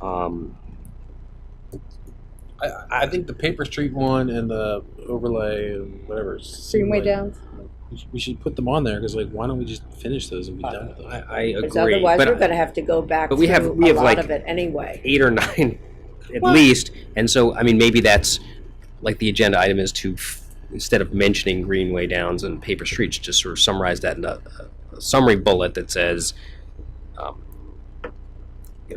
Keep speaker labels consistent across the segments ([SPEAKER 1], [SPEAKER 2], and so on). [SPEAKER 1] Um,
[SPEAKER 2] I, I think the paper street one and the overlay and whatever. seem
[SPEAKER 3] Greenway
[SPEAKER 2] like-
[SPEAKER 3] Downs.
[SPEAKER 2] We should, we should put them on there because, like, why don't we just finish those and be
[SPEAKER 1] I,
[SPEAKER 2] done with them?
[SPEAKER 1] I I agree.
[SPEAKER 3] Because otherwise,
[SPEAKER 1] but
[SPEAKER 3] we're going to have to go back
[SPEAKER 1] but we have-
[SPEAKER 3] through
[SPEAKER 1] we
[SPEAKER 3] a
[SPEAKER 1] have,
[SPEAKER 3] lot
[SPEAKER 1] like-
[SPEAKER 3] of it anyway.
[SPEAKER 1] eight or nine at least. And so, I mean, maybe that's like the agenda item is to, f- instead of mentioning Greenway Downs and paper streets, just sort of summarize that in a, a summary bullet that says, um,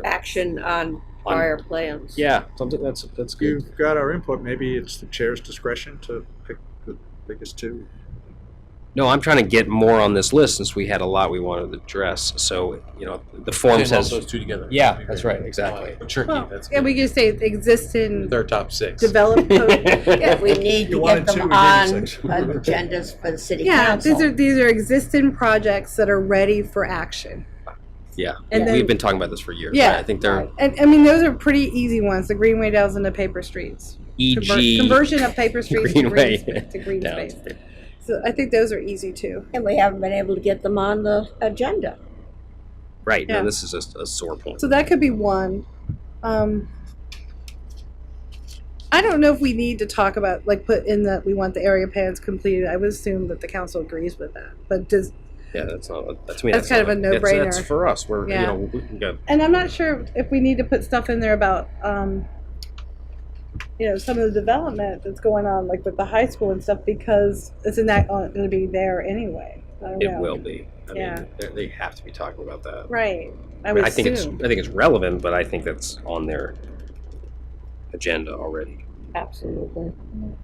[SPEAKER 3] Action on prior plans.
[SPEAKER 1] yeah, something that's that's good.
[SPEAKER 4] You've got our input. Maybe it's the chair's discretion to pick the biggest two.
[SPEAKER 1] No, I'm trying to get more on this list since we had a lot we wanted to address. So, you know, the form
[SPEAKER 2] Same, lump
[SPEAKER 1] says,
[SPEAKER 2] those two together.
[SPEAKER 1] Yeah,
[SPEAKER 2] That'd be
[SPEAKER 1] that's
[SPEAKER 2] great.
[SPEAKER 1] right, exactly.
[SPEAKER 2] Well, tricky.
[SPEAKER 5] Well,
[SPEAKER 2] that's
[SPEAKER 5] And we
[SPEAKER 2] good.
[SPEAKER 5] can say existing
[SPEAKER 2] With our top six.
[SPEAKER 5] developed code.
[SPEAKER 3] Yeah, we need to
[SPEAKER 4] You
[SPEAKER 3] get
[SPEAKER 4] wanted two,
[SPEAKER 3] them
[SPEAKER 4] we
[SPEAKER 3] on
[SPEAKER 4] gave you six.
[SPEAKER 3] agendas for the city
[SPEAKER 5] Yeah, these are,
[SPEAKER 3] council.
[SPEAKER 5] these are existing projects that are ready for action.
[SPEAKER 1] yeah,
[SPEAKER 5] And
[SPEAKER 1] we've
[SPEAKER 5] then,
[SPEAKER 1] been talking about this for years.
[SPEAKER 5] Yeah.
[SPEAKER 1] right? I think they're
[SPEAKER 5] and, I mean, those are pretty easy ones, the greenway downs and the paper streets. Conver-
[SPEAKER 1] e.g.
[SPEAKER 5] Conversion of paper streets to green,
[SPEAKER 1] E Greenway
[SPEAKER 5] sp- to green
[SPEAKER 1] Downs.
[SPEAKER 5] space. So I think those are easy too.
[SPEAKER 3] And we haven't been able to get them on the agenda.
[SPEAKER 1] Right,
[SPEAKER 5] Yeah.
[SPEAKER 1] no, this is a, a sore point.
[SPEAKER 5] So that could be one. Um, I don't know if we need to talk about, like, put in that we want the area plans completed. I would assume that the council agrees with that. But does,
[SPEAKER 1] Yeah, that's not, that's, I mean,
[SPEAKER 5] That's
[SPEAKER 1] not
[SPEAKER 5] kind of a
[SPEAKER 1] that's- That's
[SPEAKER 5] no-brainer.
[SPEAKER 1] for us, we're, you
[SPEAKER 5] Yeah.
[SPEAKER 1] know, we we got
[SPEAKER 5] and I'm not sure if we need to put stuff in there about, um, you know, some of the development that's going on, like with the high school and stuff, because it's not going to be there anyway. I don't
[SPEAKER 1] It
[SPEAKER 5] know.
[SPEAKER 1] will be. I
[SPEAKER 5] Yeah.
[SPEAKER 1] mean, they're- they have to be talking about that.
[SPEAKER 5] Right. I
[SPEAKER 1] I mean,
[SPEAKER 5] would
[SPEAKER 1] I think it's, I
[SPEAKER 5] assume.
[SPEAKER 1] think it's relevant, but I think that's on their agenda already.
[SPEAKER 3] Absolutely.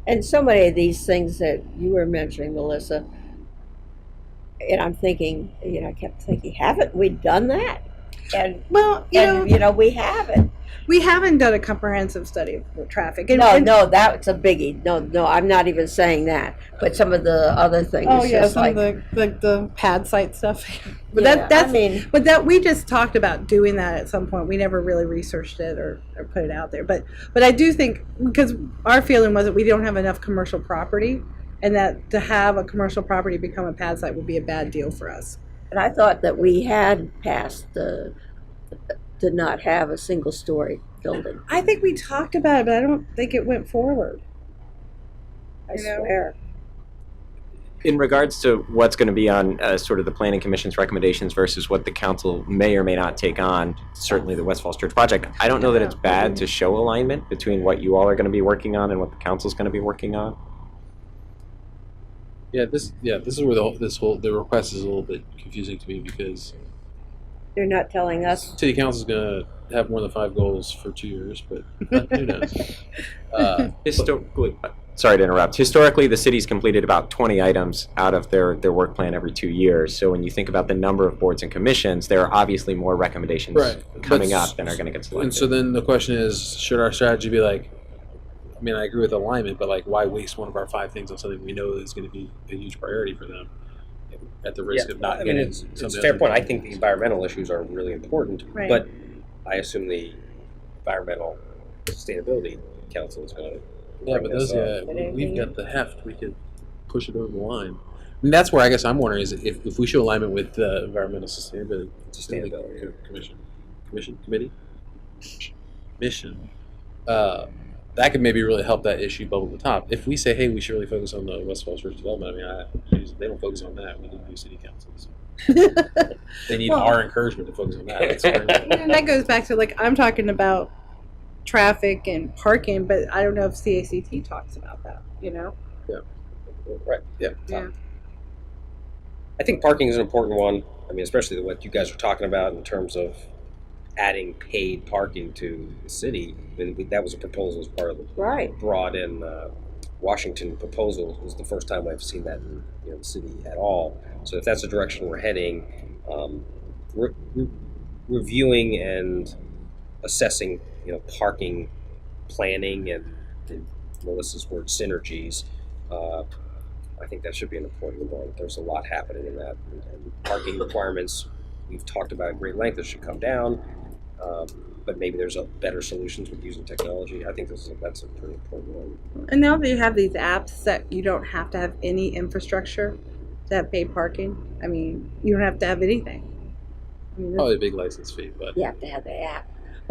[SPEAKER 3] And so many of these things that you were mentioning, Melissa, and I'm thinking, you know, I kept thinking, haven't we done that? And,
[SPEAKER 5] well, you know,
[SPEAKER 3] and, you know, we haven't.
[SPEAKER 5] we haven't done a comprehensive study of traffic. And,
[SPEAKER 3] No,
[SPEAKER 5] and-
[SPEAKER 3] no, that's a biggie. No, no, I'm not even saying that. But some of the other things,
[SPEAKER 5] Oh
[SPEAKER 3] it's
[SPEAKER 5] yeah,
[SPEAKER 3] just
[SPEAKER 5] some
[SPEAKER 3] like,
[SPEAKER 5] of the, like the pad site stuff. but
[SPEAKER 3] yeah,
[SPEAKER 5] that that's
[SPEAKER 3] I mean,
[SPEAKER 5] but that we just talked about doing that at some point. We never really researched it or, or put it out there. But but I do think because our feeling was that we don't have enough commercial property, and that to have a commercial property become a pad site would be a bad deal for us.
[SPEAKER 3] and I thought that we had passed the, to not have a single story building.
[SPEAKER 5] I think we talked about it, but I don't think it went forward.
[SPEAKER 3] I
[SPEAKER 5] You know.
[SPEAKER 3] swear.
[SPEAKER 6] In regards to what's going to be on uh, sort of the planning commission's recommendations versus what the council may or may not take on, certainly the West Falls Church project, I don't know that it's bad to show alignment between what you all are going to be working on and what the council's going to be working on.
[SPEAKER 2] Yeah, this yeah this is where the whole, this whole the request is a little bit confusing to me because
[SPEAKER 3] They're not telling us.
[SPEAKER 2] city council is gonna have more than five goals for two years, but uh, who knows? Uh,
[SPEAKER 6] Historically, sorry to interrupt. Historically, the city's completed about 20 items out of their, their work plan every two years. So when you think about the number of boards and commissions, there are obviously more recommendations
[SPEAKER 2] right,
[SPEAKER 6] coming
[SPEAKER 2] But s-
[SPEAKER 6] up than are going to get selected.
[SPEAKER 2] And so then the question is, should our strategy be like? I mean, I agree with alignment, but like, why waste one of our five things on something we know is going to be a huge priority for them, at the risk of
[SPEAKER 1] Uh,
[SPEAKER 2] not
[SPEAKER 1] I mean,
[SPEAKER 2] getting
[SPEAKER 1] it's, it's
[SPEAKER 2] something
[SPEAKER 1] a fair
[SPEAKER 2] else?
[SPEAKER 1] point. I think the environmental issues are really important,
[SPEAKER 5] Right.
[SPEAKER 1] but I assume the environmental sustainability council is going to.
[SPEAKER 2] Yeah, but those, yeah,
[SPEAKER 3] But
[SPEAKER 2] we- we've
[SPEAKER 3] anything-
[SPEAKER 2] got the heft. We could push it over the line. And that's where I guess I'm wondering is if, if we show alignment with the environmental sustainability,
[SPEAKER 1] Sustainability, yeah.
[SPEAKER 2] commission, commission committee, mission, uh, that could maybe really help that issue bubble to the top. If we say, hey, we should really focus on the West Falls Church development, I mean, I, they don't focus on that. We need new city councils. they need
[SPEAKER 5] Well-
[SPEAKER 2] our encouragement to focus on that. It's very-
[SPEAKER 5] And that goes back to like I'm talking about traffic and parking, but I don't know if CACT talks about that. You know.
[SPEAKER 1] Right. Yeah.
[SPEAKER 5] Yeah.
[SPEAKER 1] I think parking is an important one. I mean, especially what you guys are talking about in terms of adding paid parking to the city. I mean, that was a proposal as part of the
[SPEAKER 3] Right.
[SPEAKER 1] brought in uh, Washington proposal was the first time I've seen that in you know, the city at all. So if that's the direction we're heading, um, re- re- reviewing and assessing, you know, parking planning and the, Melissa's word synergies, uh, I think that should be an important one. There's a lot happening in that. And, and parking requirements we've talked about at great length. This should come down. Um, but maybe there's a better solutions with using technology. I think this is, that's a pretty important one.
[SPEAKER 5] And now that you have these apps that you don't have to have any infrastructure to have paid parking, I mean, you don't have to have anything. I mean, that's-
[SPEAKER 2] Probably a big license fee, but
[SPEAKER 3] You have to have the app.